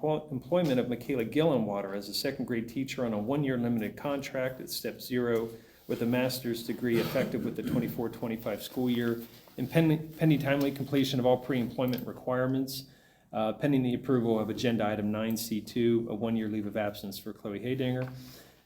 emplo- employment of Michaela Gillenwater as a second grade teacher on a one-year limited contract at step zero with a master's degree effective with the 24-25 school year and pending, pending timely completion of all pre-employment requirements, uh, pending the approval of agenda item nine C two, a one-year leave of absence for Chloe Haydinger.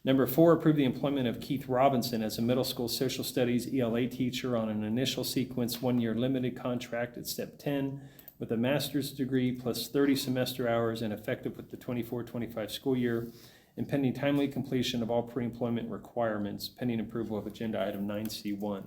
Number four, approve the employment of Keith Robinson as a middle school social studies ELA teacher on an initial sequence, one-year limited contract at step ten with a master's degree plus thirty semester hours and effective with the 24-25 school year and pending timely completion of all pre-employment requirements, pending approval of agenda item nine C one.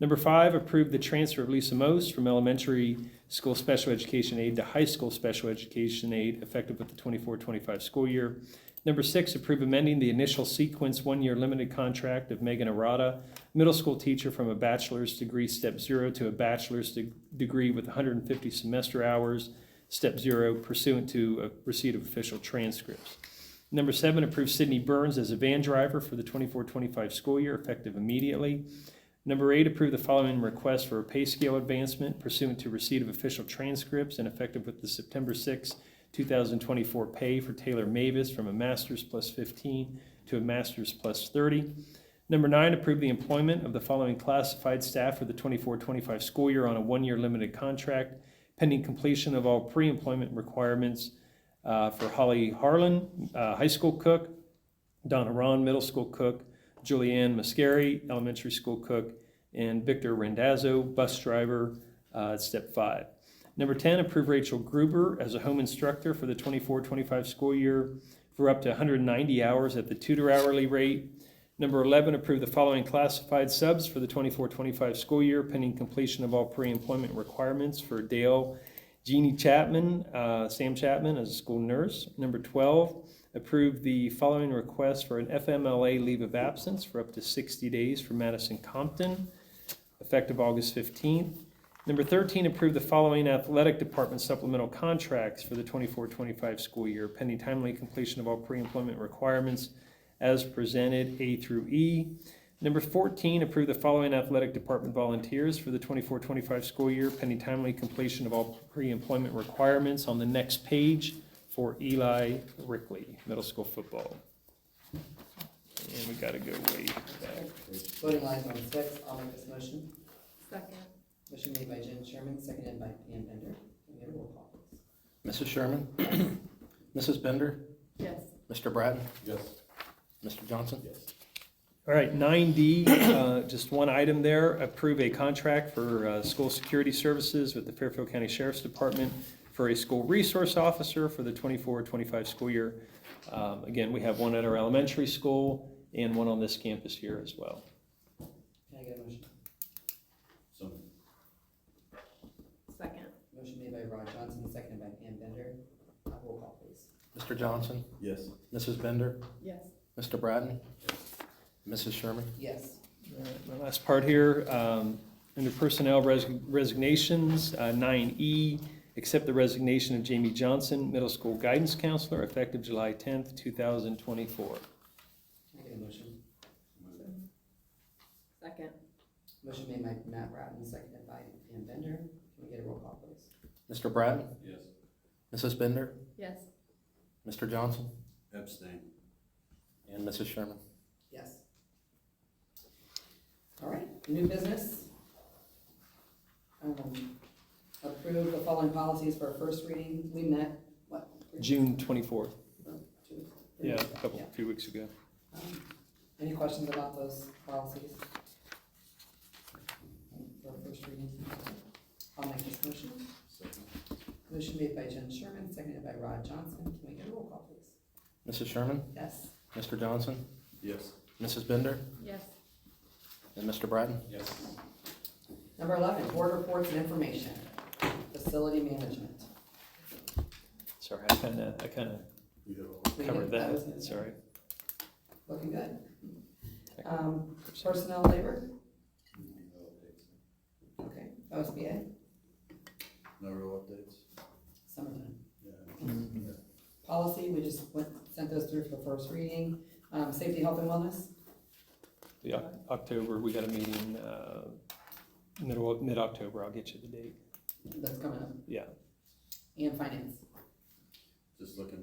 Number five, approve the transfer of Lisa Most from elementary school special education aide to high school special education aide effective with the 24-25 school year. Number six, approve amending the initial sequence one-year limited contract of Megan Arata, middle school teacher from a bachelor's degree step zero to a bachelor's de- degree with hundred and fifty semester hours, step zero pursuant to a receipt of official transcripts. Number seven, approve Sydney Burns as a van driver for the 24-25 school year effective immediately. Number eight, approve the following request for a pay scale advancement pursuant to receipt of official transcripts and effective with the September 6, 2024 pay for Taylor Mavis from a master's plus 15 to a master's plus 30. Number nine, approve the employment of the following classified staff for the 24-25 school year on a one-year limited contract pending completion of all pre-employment requirements uh, for Holly Harlan, uh, high school cook, Donna Ron, middle school cook, Julianne Mascari, elementary school cook, and Victor Rendazzo, bus driver, uh, at step five. Number 10, approve Rachel Gruber as a home instructor for the 24-25 school year for up to 190 hours at the tutor hourly rate. Number 11, approve the following classified subs for the 24-25 school year pending completion of all pre-employment requirements for Dale Jeannie Chapman, uh, Sam Chapman as a school nurse. Number 12, approve the following request for an FMLA leave of absence for up to 60 days for Madison Compton, effective August 15th. Number 13, approve the following athletic department supplemental contracts for the 24-25 school year, pending timely completion of all pre-employment requirements as presented, A through E. Number 14, approve the following athletic department volunteers for the 24-25 school year, pending timely completion of all pre-employment requirements on the next page for Eli Rickley, middle school football. And we gotta go way back. Voting lines on six, I'll make this motion. Second. Motion made by Jen Sherman, seconded by Pam Bender. Can we get a roll call, please? Mrs. Sherman? Mrs. Bender? Yes. Mr. Bratton? Yes. Mr. Johnson? Yes. All right, nine D, uh, just one item there, approve a contract for uh, school security services with the Fairfield County Sheriff's Department for a school resource officer for the 24-25 school year. Um, Again, we have one at our elementary school and one on this campus here as well. Can I get a motion? So moved. Second. Motion made by Rod Johnson, seconded by Pam Bender. Uh, Roll call, please. Mr. Johnson? Yes. Mrs. Bender? Yes. Mr. Bratton? Mrs. Sherman? Yes. All right, My last part here, um, under personnel res- resignations, nine E, accept the resignation of Jamie Johnson, middle school guidance counselor, effective July tenth, two thousand twenty-four. Can I get a motion? Second. Motion made by Matt Bratton, seconded by Pam Bender. Can we get a roll call, please? Mr. Bratton? Yes. Mrs. Bender? Yes. Mr. Johnson? Abstain. And Mrs. Sherman? Yes. All right, new business. Um, Approve the following policies for our first reading. We met, what? three- June twenty-fourth, two- three yeah, a weeks ago? couple, Yeah. a few weeks ago. Um, Any questions about those policies? For first reading? I'll make this motion. Second. Motion made by Jen Sherman, seconded by Rod Johnson. Can we get a roll call, please? Mrs. Sherman? Yes. Mr. Johnson? Yes. Mrs. Bender? Yes. And Mr. Bratton? Yes. Number eleven, board reports and information, facility management. Sorry, I kinda, I kinda You have all. We covered did- was- that, sorry. Looking good. Um, personnel labor, You need no updates. okay, OSBA, No real updates? summertime. Yeah. Mhm. Policy, we just went, sent those through for first reading. Um, safety, health and wellness, The Oc- October, we got a meeting, uh, middle, of- mid-October, I'll get you the date, that's coming up, yeah. and finance. Just looking